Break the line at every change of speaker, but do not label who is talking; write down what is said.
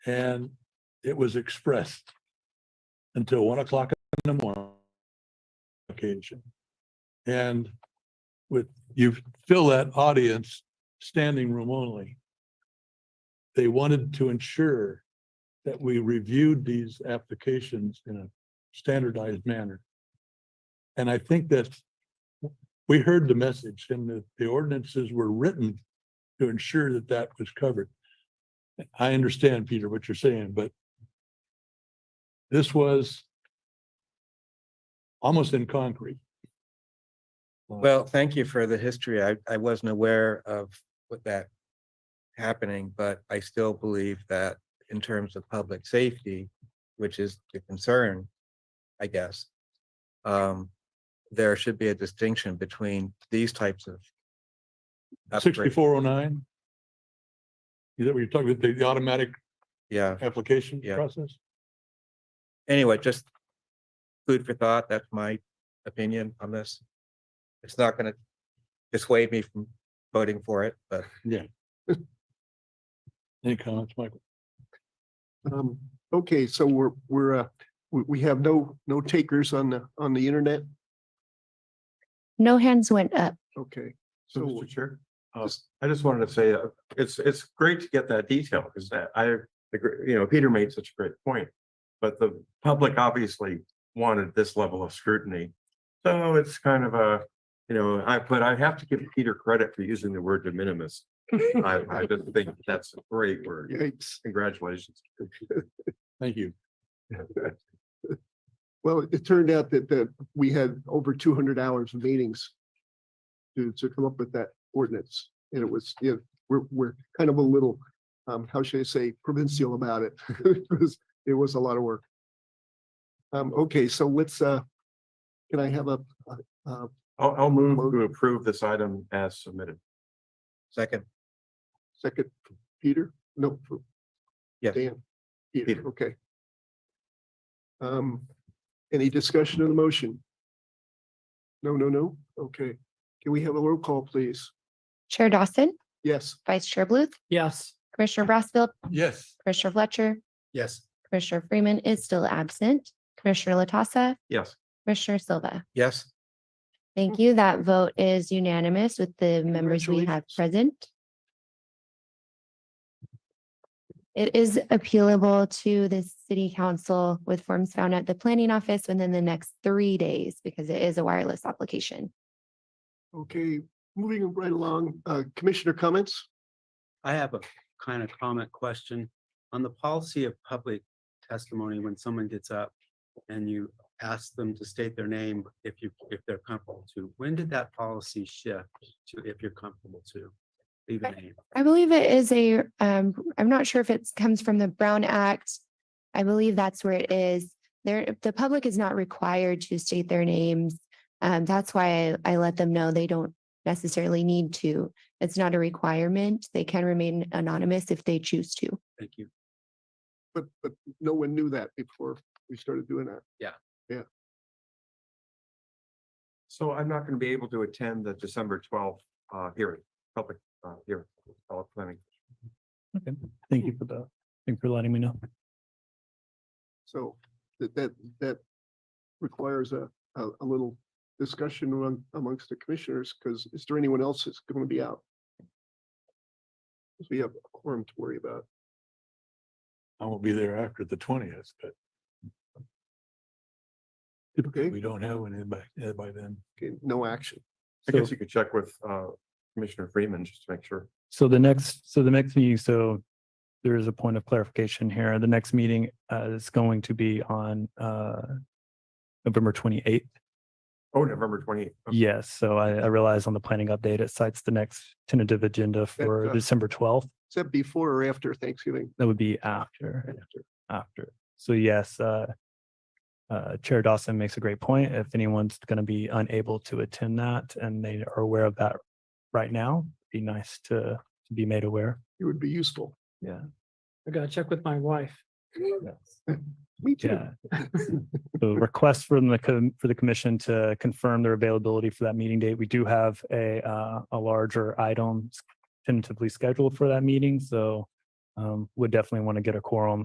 and it was expressed until one o'clock in the morning occasion. And with, you fill that audience standing room only. They wanted to ensure that we reviewed these applications in a standardized manner. And I think that we heard the message and the, the ordinances were written to ensure that that was covered. I understand, Peter, what you're saying, but this was almost in concrete.
Well, thank you for the history. I, I wasn't aware of what that happening, but I still believe that in terms of public safety, which is the concern, I guess, um, there should be a distinction between these types of upgrades.
Sixty-four oh nine? Is that what you're talking about, the- the automatic
Yeah,
application
Yeah.
process?
anyway, just food for thought. That's my opinion on this. It's not gonna dissuade me from voting for it, but
Any comments, Michael?
Um, okay, so we're, we're, uh, we, we have no, no takers on the, on the internet?
No hands went up.
Okay.
So,
So,
Mr. Chair, uh, I just wanted to say, uh, it's, it's great to get that detail because that I, agree- you know, Peter made such a great point. But the public obviously wanted this level of scrutiny. So it's kind of a, you know, I, but I have to give Peter credit for using the word de minimis. I, I just think that's a great word.
yikes.
Congratulations.
Thank you.
Well, it turned out that, that we had over two hundred hours of meetings to, to come up with that ordinance. And it was, yeah, we're, we're kind of a little, um, how should I say, provincial about it. It was, it was a lot of work. Um, okay, so let's, uh, can I have a,
I'll, I'll move to approve this item as submitted.
second,
Second, for Peter? No. for
Yes.
Dan? Peter,
Peter.
okay. Um, any discussion of the motion? No, no, no? Okay. Can we have a roll call, please?
Chair Dawson,
Yes.
Vice Chair Bluth,
Yes.
Commissioner Brassfield,
Yes.
Commissioner Fletcher,
Yes.
Commissioner Freeman is still absent, Commissioner Latassa,
Yes.
Commissioner Silva.
yes?
Thank you. That vote is unanimous with the members we have
Congratulations.
present. It is appealable to the city council with forms found at the planning office within the next three days because it is a wireless application.
Okay, moving right along, uh, commissioner comments?
I have a kind of comment question on the policy of public testimony when someone gets up and you ask them to state their name if you, if they're comfortable to. When did that policy shift to if you're comfortable to? Leave a name.
I believe it is a, um, I'm not sure if it comes from the Brown Act. I believe that's where it is. There, the public is not required to state their names. Um, that's why I, I let them know they don't necessarily need to. It's not a requirement. They can remain anonymous if they choose to.
Thank you.
But, but no one knew that before we started doing that.
So I'm not going to be able to attend the December twelfth, uh, hearing, public, uh, hearing, public planning.
Okay. Thank you for that. Thank you for letting me know.
So that, that, that requires a, a, a little discussion among, amongst the commissioners, because is there anyone else that's going to be out? 'Cause We have a quorum to worry about.
I won't be there after the twentieth, but
Okay,
we don't have one in by, uh, by then.
okay, no action.
I guess you could check with uh Commissioner Freeman just to make sure.
So the next, so the next meeting, so there is a point of clarification here. The next meeting uh, is going to be on uh, November 28th.
Oh, November twenty eighth.
Yes, so I I realize on the planning update, it cites the next tentative agenda for
uh,
December 12th.
Is that before or after Thanksgiving?
That would be after,
After.
after. So yes, uh, uh, Chair Dawson makes a great point. If anyone's going to be unable to attend that and they are aware of that right now, be nice to to be made aware.
It would be useful.
I gotta check with my wife.
Me too.
Yeah. So request from the, com- for the commission to confirm their availability for that meeting date. We do have a, uh, a larger item s- tentatively scheduled for that meeting, so um, would definitely want to get a quorum